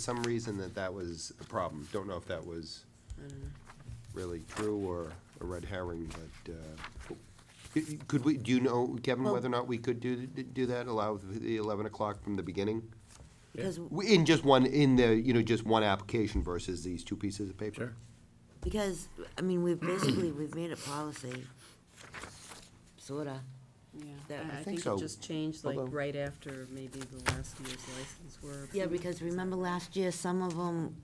some reason that that was a problem. Don't know if that was really true or a red herring, but, uh, y- y- could we, do you know, Kevin, whether or not we could do, do that, allow the eleven o'clock from the beginning? Because, We- In just one, in the, you know, just one application versus these two pieces of paper? Sure. because, I mean, we've basically, we've made a policy, sorta. Yeah, That- I- I I think think so, it just changed like although- right after maybe the last year's license were. Yeah, approved. because remember last year, some of them,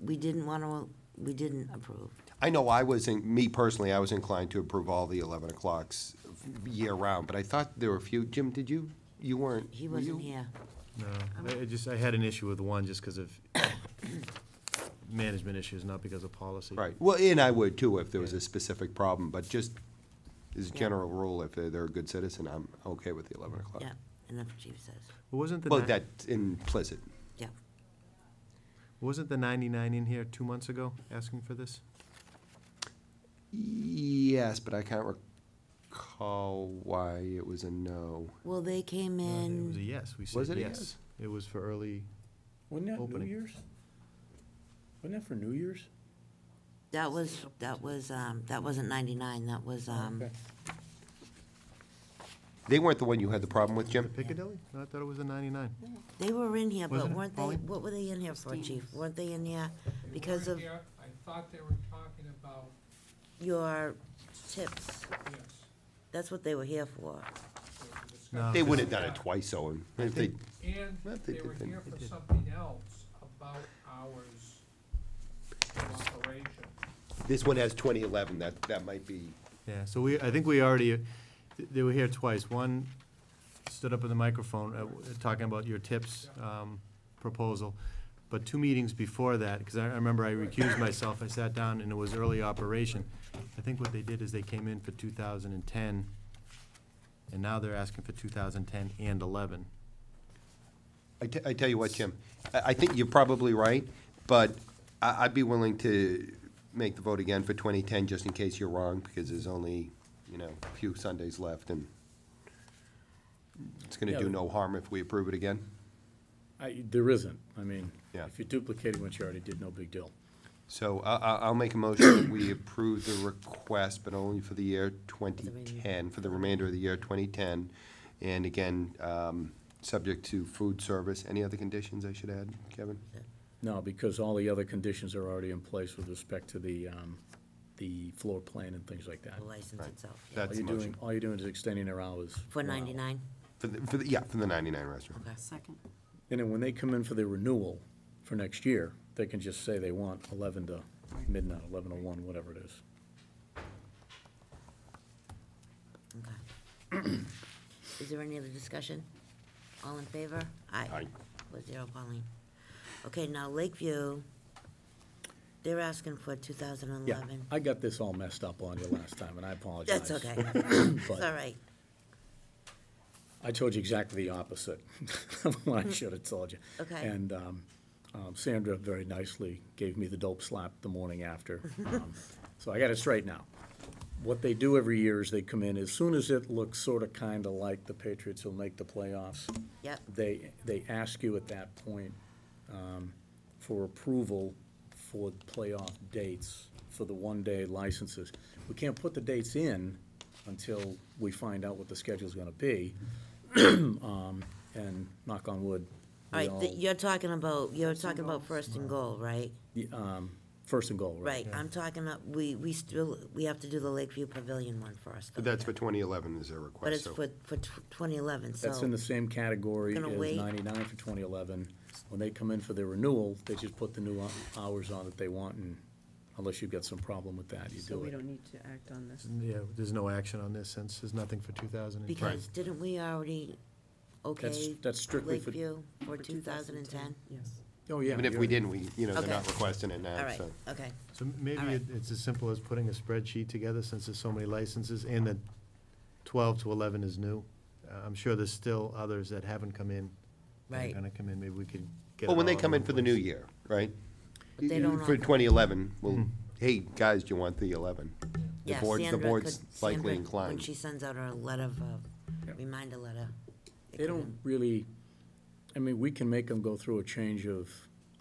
we didn't wanna, we didn't approve. I know I was, in- me personally, I was inclined to approve all the eleven o'clocks year-round, but I thought there were a few, Jim, did you, you weren't? He were you? wasn't here. No, I- I just, I had an issue with one just because of management issues, not because of policy. Right, well, and I would too if there was a specific problem, but just as a general rule, if they're, they're a good citizen, I'm okay with the eleven o'clock. Yeah, and that's what Chief says. Well, Wasn't the, Well, ni- that's implicit. Yeah. wasn't the 99 in here two months ago asking for this? Yes, but I can't recall why it was a no. Well, they came Uh, It was in, a yes, we Was said it a yes? yes. It was for early, Wasn't that New Opening. Year's? Wasn't that for New Year's? that was, that was, um, that wasn't ninety-nine, that was, um, Okay. They weren't the one you had the problem with, the Jim? Piccadilly? No, I thought it was the 99. they were in here, but Wasn't it, weren't they, Pauline? what were they in here for, Chief? Weren't they in here They because weren't of here. I thought they were talking about, your tips? yes. That's what they were here for. they were discussing No, They would because- have done it twice, Owen. If they, Well, And they they did were then. here They for did. something else about hours of operation. this one has twenty eleven, that, that might be, Yeah, so we, I think we already, th- they were here twice. One stood up in the microphone uh, w- talking about your tips um, proposal, but two meetings before that, because I I remember I recused myself, I sat down and it was early operation. I think what they did is they came in for 2010, and now they're asking for 2010 and 11. I, te- I tell you what, Jim, I, I think you're probably right, but I, I'd be willing to make the vote again for twenty ten, just in case you're wrong, because there's only, you know, a few Sundays left, and it's gonna Yeah. do no harm if we approve it again. I, there isn't, I mean, Yeah. if you're duplicating what you already did, no big deal. So I, I, I'll make a motion that we approve the request, but only for the year twenty ten, for the remainder of the year twenty ten. And again, um, subject to food service. Any other conditions I should add, Kevin? No, because all the other conditions are already in place with respect to the, um, the floor plan and things like that. the license Right. itself. yeah. That's All the you're motion. doing, all you're doing is extending their hours. For one hour. ninety-nine? For the, for the, yeah, for the ninety-nine restaurant. Okay. Second. And then when they come in for the renewal for next year, they can just say they want eleven to midnight, eleven to one, whatever it is. Okay. Is there any other discussion? All in favor? Aye. Four zero, Pauline. Okay, now Lakeview, they're asking for two thousand and Yeah, eleven. I got this all messed up on you last time, and I apologize. That's okay. It's But- all right. I told you exactly the opposite of what I should have told you. Okay. And um, um, Sandra very nicely gave me the dope slap the morning after. Um, So I got it straight now. What they do every year is they come in, as soon as it looks sort of kind of like the Patriots will make the playoffs, Yep, they, they ask you at that point um, for approval for playoff dates, for the one-day licenses. We can't put the dates in until we find out what the schedule's gonna be. Um, And knock on wood, all we right, th- all- you're talking about, you're talking about first and goal, right? the, um, first and goal, right? Right, I'm talking, about- we, we still, we have to do the Lakeview Pavilion one first. But that's for twenty eleven is their request. But it's so- for, for twenty eleven, so. That's in the same category as Gonna wait. ninety-nine for twenty eleven. When they come in for their renewal, they just put the new hou- hours on that they want, and unless you've got some problem with that, you do it. So we don't need to act on this. Mm. Yeah, there's no action on this since there's nothing for 2000. and- Because didn't we already That's, okay that's strictly for. Lakeview for For 2010? Yes. Oh, yeah. Even if we didn't, we, you know, they're Okay. not requesting it All now, right, so. okay. So m- maybe All right. it- it's as simple as putting a spreadsheet together, since there's so many licenses, and the twelve to eleven is new. Uh, I'm sure there's still others that haven't come in. that are Right. Gonna come in, maybe we could get. Well, it when they all come in one for the new place. year, right? But they don't For offer- Hmm. twenty eleven, well, hey, guys, do you want the eleven? The Yeah, board, the Sandra board's could- Sandra, likely When inclined. she sends out her letter of, uh, reminder letter. it They could- don't really, I mean, we can make them go through a change of